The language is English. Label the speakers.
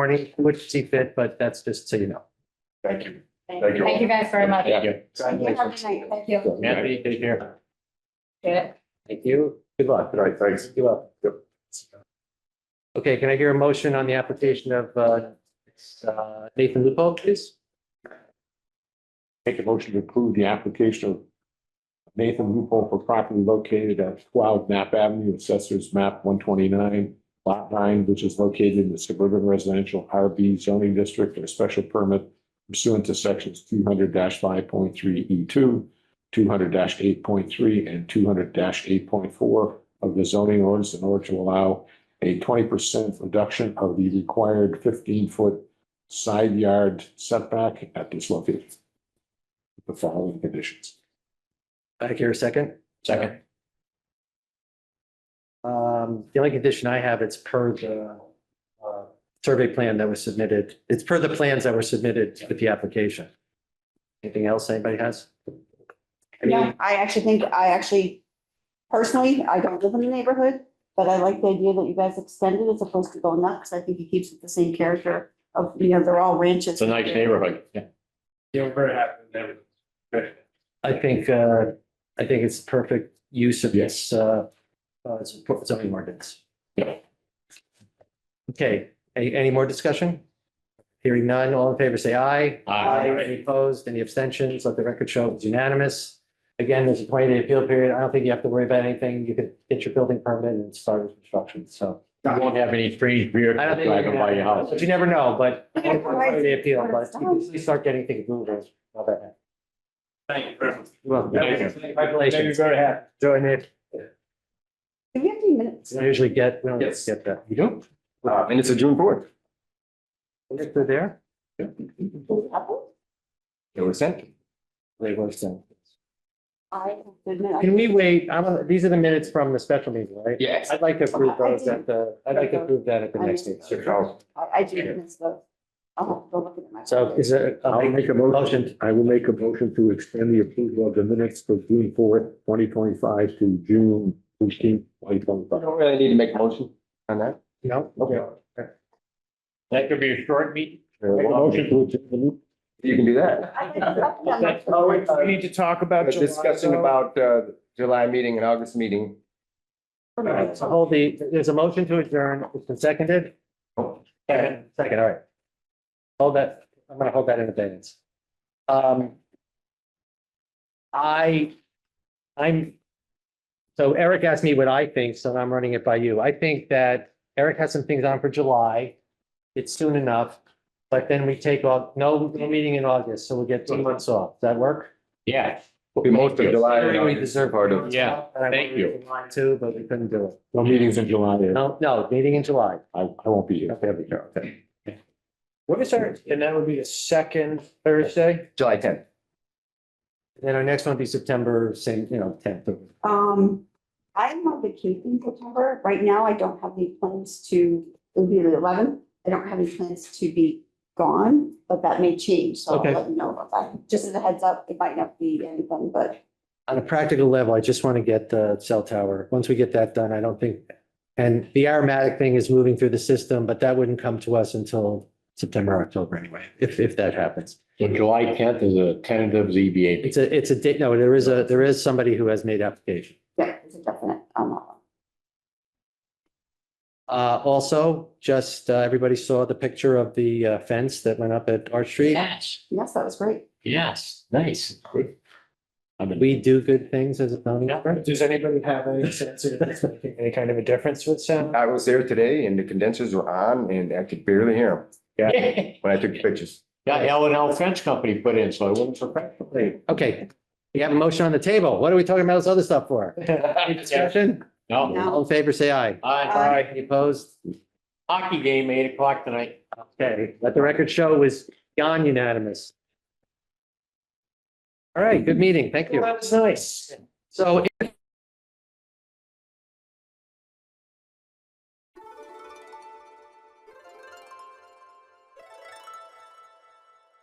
Speaker 1: morning, which see fit, but that's just so you know.
Speaker 2: Thank you. Thank you.
Speaker 3: Thank you guys very much.
Speaker 2: Yeah.
Speaker 3: Have a
Speaker 1: Congratulations.
Speaker 3: good night. Thank you.
Speaker 1: Anthony, take care.
Speaker 3: Yeah.
Speaker 1: Thank you. Good luck.
Speaker 2: All right, thanks.
Speaker 1: Good luck. Okay, can I hear a motion on the application of uh, it's, uh, Nathan Lupo, please?
Speaker 4: Make a motion to approve the application of Nathan Loophole for property located at twelve Knapp Avenue, assessors map one twenty-nine, lot nine, which is located in the suburban residential RB zoning district for a special permit pursuant to sections two hundred five point three E two, two hundred eight point three, and two hundred eight point four of the zoning ordinance in order to allow a twenty percent reduction of the required fifteen-foot side yard setback at this location the following conditions.
Speaker 1: Back here a second. Um, the only condition I have, it's per the uh, survey plan that was submitted. It's per the plans that were submitted with the application. Anything else anybody has? I mean,
Speaker 3: Yeah.
Speaker 5: I actually think, I actually, personally, I don't live in the neighborhood, but I like the idea that you guys extended as opposed to going up, because I think it keeps it the same character of, you know, they're all ranches.
Speaker 6: It's a nice neighborhood. Yeah.
Speaker 2: Yeah, we're very happy with everything.
Speaker 1: I think, uh, I think it's perfect use of this, uh, uh, zoning ordinance.
Speaker 4: Yeah.
Speaker 1: Okay, any, any more discussion? Hearing none, all in favor, say aye. Any opposed, any abstentions? Let the record show it's unanimous. Again, there's a twenty day appeal period. I don't think you have to worry about anything. You could get your building permit and start construction, so.
Speaker 6: You won't have any strange beer
Speaker 1: I don't think
Speaker 6: driving by your house.
Speaker 1: But you never know, but
Speaker 5: Yeah, right.
Speaker 1: twenty day appeal, but you can usually start getting things moving. All that.
Speaker 2: Thank you very much.
Speaker 1: Well,
Speaker 2: Made me
Speaker 1: congratulations.
Speaker 2: very happy.
Speaker 1: Join it.
Speaker 5: Do we have any minutes?
Speaker 1: We don't usually get, we don't
Speaker 2: Yes.
Speaker 1: get that.
Speaker 4: You don't?
Speaker 2: Uh, and it's a June fourth.
Speaker 1: If they're there,
Speaker 5: Apple?
Speaker 2: It was sent.
Speaker 1: they were sent.
Speaker 5: I didn't know.
Speaker 1: Can we wait? I'm, uh, these are the minutes from the special meeting, right?
Speaker 2: Yes.
Speaker 1: I'd like to approve those at the, I'd like to approve that at the next meeting.
Speaker 5: I I do miss those. I'll have to go look at my.
Speaker 1: So is it?
Speaker 4: I'll make a motion. I will make a motion to extend the approval of the minutes for June fourth, twenty twenty-five to June fifteenth, twenty twenty-five.
Speaker 2: don't really need to make a motion on that.
Speaker 1: No?
Speaker 6: That could be a short meeting.
Speaker 4: Motion to adjourn.
Speaker 2: You can do that.
Speaker 5: I can- I can- I'm not-
Speaker 7: We need to talk about. July,
Speaker 2: Discussing
Speaker 7: though.
Speaker 2: about, uh, July meeting and August meeting.
Speaker 1: So hold the, there's a motion to adjourn. It's been seconded. Second, second, all right. Hold that, I'm gonna hold that in abeyance. Um. I, I'm, so Eric asked me what I think, so I'm running it by you. I think that Eric has some things on for July. It's soon enough, but then we take off, no, no meeting in August, so we'll get two months off. Does that work?
Speaker 6: Yeah.
Speaker 2: Be most of July. and
Speaker 1: We
Speaker 2: August.
Speaker 1: deserve
Speaker 2: Part of.
Speaker 6: Yeah,
Speaker 1: And I
Speaker 6: thank you.
Speaker 1: wanted to, but we couldn't do it.
Speaker 4: No meetings in July.
Speaker 1: No, no, meeting in July.
Speaker 4: I, I won't be here.
Speaker 1: Okay, I'll be here, okay.
Speaker 7: What is our, and that would be the second Thursday?
Speaker 2: July tenth.
Speaker 1: Then our next one will be September, same, you know, tenth.
Speaker 5: Um, I'm on vacation in September. Right now, I don't have any plans to, it'll be the eleventh. I don't have any plans to be gone, but that may change, so I'll
Speaker 1: Okay.
Speaker 5: let you know about that. Just as a heads up, it might not be anything, but
Speaker 1: On a practical level, I just want to get the cell tower. Once we get that done, I don't think, and the aromatic thing is moving through the system, but that wouldn't come to us until September, October anyway, if, if that happens.
Speaker 4: So July tenth is a tentative ZBA.
Speaker 1: It's a, it's a, di- no, there is a, there is somebody who has made application.
Speaker 5: yeah, it's a definite um, on that one.
Speaker 1: Uh, also, just, uh, everybody saw the picture of the uh, fence that went up at Arch Street.
Speaker 6: Yes,
Speaker 5: Yes, that was great.
Speaker 6: yes, nice.
Speaker 4: I've been-
Speaker 1: We do good things as a zoning board.
Speaker 7: Does anybody have any sense of it's making any kind of a difference with sound?
Speaker 2: I was there today and the condensers were on and I could barely hear them
Speaker 6: Got
Speaker 2: when I took pictures.
Speaker 6: L and L French Company put in, so I wouldn't surprise.
Speaker 1: Okay, we have a motion on the table. What are we talking about this other stuff for? Any discussion?
Speaker 6: No.
Speaker 1: All in favor, say aye.
Speaker 6: Aye.
Speaker 5: Aye.
Speaker 1: Any opposed?
Speaker 6: Hockey game, eight o'clock tonight.
Speaker 1: Okay, let the record show it was beyond unanimous. All right, good meeting. Thank you.
Speaker 7: That was nice.
Speaker 1: So if